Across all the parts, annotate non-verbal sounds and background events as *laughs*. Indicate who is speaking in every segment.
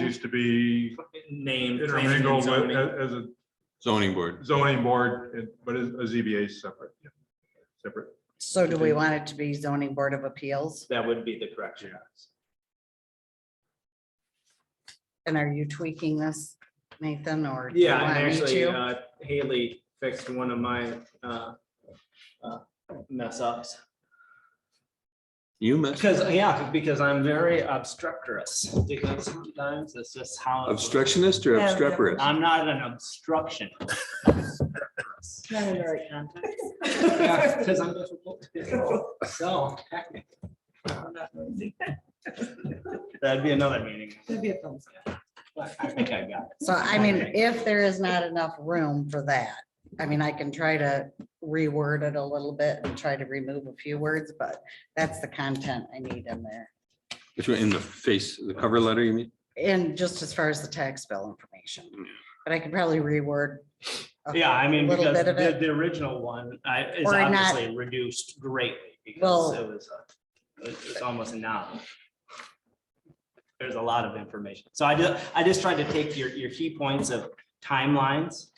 Speaker 1: used to be
Speaker 2: Name.
Speaker 1: intermingled with, as a
Speaker 3: zoning board.
Speaker 1: zoning board, it- but a a ZBA is separate, yeah, separate.
Speaker 4: So do we want it to be zoning board of appeals?
Speaker 2: That would be the correction.
Speaker 4: And are you tweaking this, Nathan, or? do you
Speaker 2: Yeah, and
Speaker 4: want me
Speaker 2: actually
Speaker 4: to?
Speaker 2: uh, Haley fixed one of my uh, uh, mess ups.
Speaker 3: You
Speaker 2: *laughs*
Speaker 3: mess
Speaker 2: Because, yeah, because I'm very obstreperous, because sometimes it's just how. it works.
Speaker 3: obstructionist or
Speaker 5: Yeah, yeah.
Speaker 3: obstreperous?
Speaker 2: I'm not an *laughs* obstruction.
Speaker 5: Not in the right context. *laughs*
Speaker 2: Because I'm difficult. *laughs* So. That'd be another meeting.
Speaker 5: That'd be a thumbs up.
Speaker 2: but I think I got it.
Speaker 4: So I mean, if there is not enough room for that, I mean, I can try to reword it a little bit and try to remove a few words, but that's the content I need in there.
Speaker 3: Which one, in the face, the cover letter, you mean?
Speaker 4: And just as far as the tax bill information, but I could probably reword. a
Speaker 2: Yeah, I mean,
Speaker 4: Little
Speaker 2: because
Speaker 4: bit of
Speaker 2: the,
Speaker 4: it.
Speaker 2: the original one I- is
Speaker 4: Or not-
Speaker 2: obviously reduced greatly because
Speaker 4: Well-
Speaker 2: it was, a- it's it's almost a novel. There's a lot of information. So I just, I just tried to take your, your key points of timelines.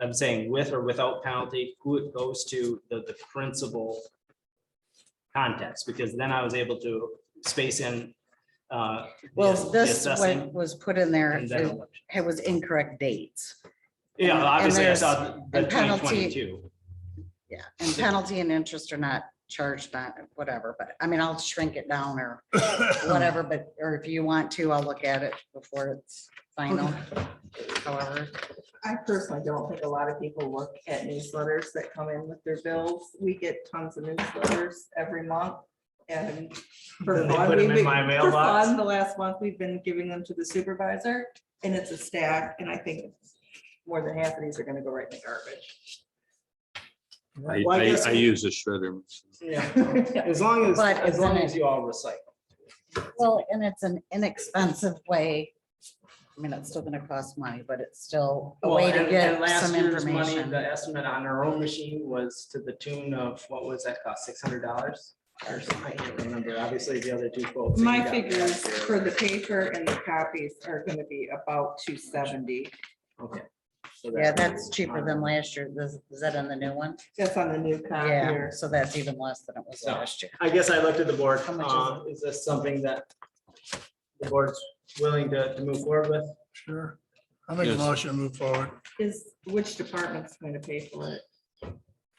Speaker 2: I'm saying with or without penalty, who it goes to, the, the principal context, because then I was able to space in. uh, the ass-
Speaker 4: Well,
Speaker 2: the
Speaker 4: this
Speaker 2: assessing
Speaker 4: one was put in there,
Speaker 2: and then
Speaker 4: it
Speaker 2: election.
Speaker 4: it was incorrect dates.
Speaker 2: Yeah,
Speaker 4: And
Speaker 2: obviously I
Speaker 4: there's-
Speaker 2: saw the twenty
Speaker 4: and penalty-
Speaker 2: twenty-two.
Speaker 4: Yeah, and penalty and interest are not charged, not whatever, but I mean, I'll shrink it down *coughs* or whatever, but, or if you want to, I'll look at it before it's final. However,
Speaker 5: I personally don't think a lot of people look at newsletters that come in with their bills. We get tons of newsletters every month. And for
Speaker 2: Then they
Speaker 5: fun,
Speaker 2: put 'em
Speaker 5: we've
Speaker 2: in
Speaker 5: been-
Speaker 2: my
Speaker 5: for
Speaker 2: mailbox.
Speaker 5: fun, The last month, we've been giving them to the supervisor and it's a stack and I think more than half of these are gonna go right in the garbage.
Speaker 3: I,
Speaker 2: Well, I
Speaker 3: I,
Speaker 2: guess-
Speaker 3: I use a shredder.
Speaker 2: As long as,
Speaker 4: But
Speaker 2: as long
Speaker 4: isn't
Speaker 2: as you all recycle.
Speaker 4: well, and it's an inexpensive way. I mean, it's still gonna cost money, but it's still a
Speaker 2: Well,
Speaker 4: way
Speaker 2: and-
Speaker 4: to
Speaker 2: and
Speaker 4: get
Speaker 2: last
Speaker 4: some
Speaker 2: year's money,
Speaker 4: information.
Speaker 2: The estimate on our own machine was to the tune of, what was that cost, six hundred dollars? Or something, I can't remember, obviously the other two quotes. that you
Speaker 5: My
Speaker 2: got
Speaker 5: figures
Speaker 2: last year.
Speaker 5: for the paper and the copies are gonna be about two seventy.
Speaker 2: Okay. So
Speaker 4: Yeah,
Speaker 2: that-
Speaker 4: that's cheaper than last year. Is, is that on the new one?
Speaker 5: That's on the new
Speaker 4: Yeah,
Speaker 5: copier.
Speaker 4: so that's even less than it was
Speaker 2: So-
Speaker 4: last year.
Speaker 2: I guess I looked at the board,
Speaker 4: How much is
Speaker 2: uh, is this something that the board's willing to, to move forward with?
Speaker 6: Sure. I make a
Speaker 3: Yes.
Speaker 6: motion to move forward.
Speaker 5: Is, which department's gonna pay for it? This is
Speaker 2: Uh,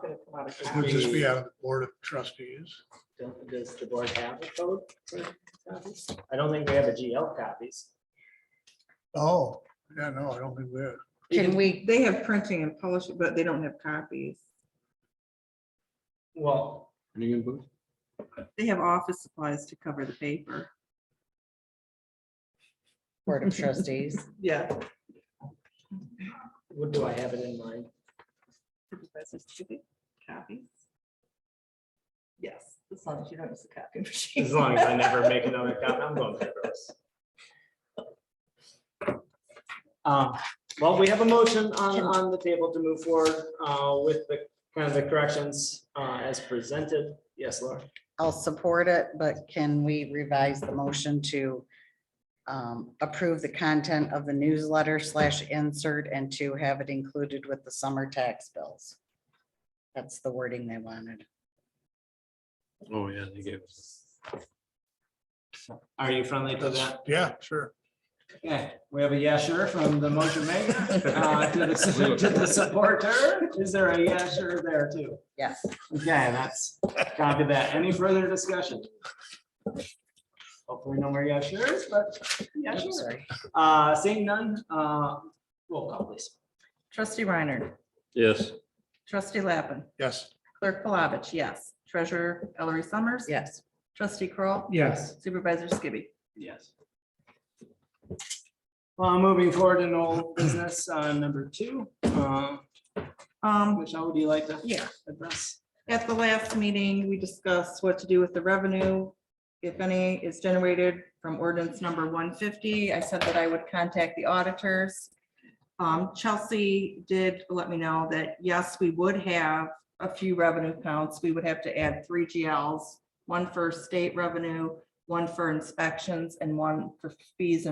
Speaker 5: gonna come out of
Speaker 6: It
Speaker 5: copies.
Speaker 6: would just be out of the board of trustees.
Speaker 2: don't- does the board have a code? for copies? I don't think we have a GL copies.
Speaker 6: Oh, yeah, no, I don't think we're,
Speaker 4: Can we,
Speaker 5: They have printing and publishing, but they don't have copies.
Speaker 2: Well,
Speaker 5: They have office supplies to cover the paper.
Speaker 4: Board of Trustees?
Speaker 5: Yeah.
Speaker 2: What do I have it in mind?
Speaker 5: Copies. Yes, as long as you don't use the copy machine.
Speaker 2: As long as I never make another copy, I'm going paperless. Uh, Well, we have a motion on, on the table to move forward uh, with the, kind of the corrections uh, as presented. Yes, Laura?
Speaker 4: I'll support it, but can we revise the motion to um, approve the content of the newsletter slash insert and to have it included with the summer tax bills? That's the wording they wanted.
Speaker 3: Oh, yeah, they gave.
Speaker 2: Are you friendly to that?
Speaker 6: yeah, sure.
Speaker 2: Yeah, we have a yes, sure from the motion maker uh, to the, to the supporter. Is there a yes, sure there too?
Speaker 4: Yes,
Speaker 2: Okay, that's, copy that. Any further discussion? Hopefully no more yeah sure's, but yeah,
Speaker 4: I'm
Speaker 2: sure.
Speaker 4: sorry.
Speaker 2: Uh, seeing none, uh, roll call please.
Speaker 7: *laughs* Trustee Reiner.
Speaker 3: Yes.
Speaker 7: Trustee Lappin.
Speaker 6: Yes.
Speaker 7: Clerk Palovich, yes. Treasurer Ellery Summers.
Speaker 4: Yes,
Speaker 7: Trustee Kroll,
Speaker 6: Yes.
Speaker 7: Supervisor Skibby.
Speaker 2: Yes. Well, Uh, moving forward in old business, uh, number two, uh,
Speaker 7: Um,
Speaker 2: Michelle, would you like to
Speaker 7: yeah,
Speaker 2: address?
Speaker 7: at the last meeting, we discussed what to do with the revenue. If any is generated from ordinance number one fifty, I said that I would contact the auditors. Um, Chelsea did let me know that, yes, we would have a few revenue counts. We would have to add three GLs. One for state revenue, one for inspections and one for fees and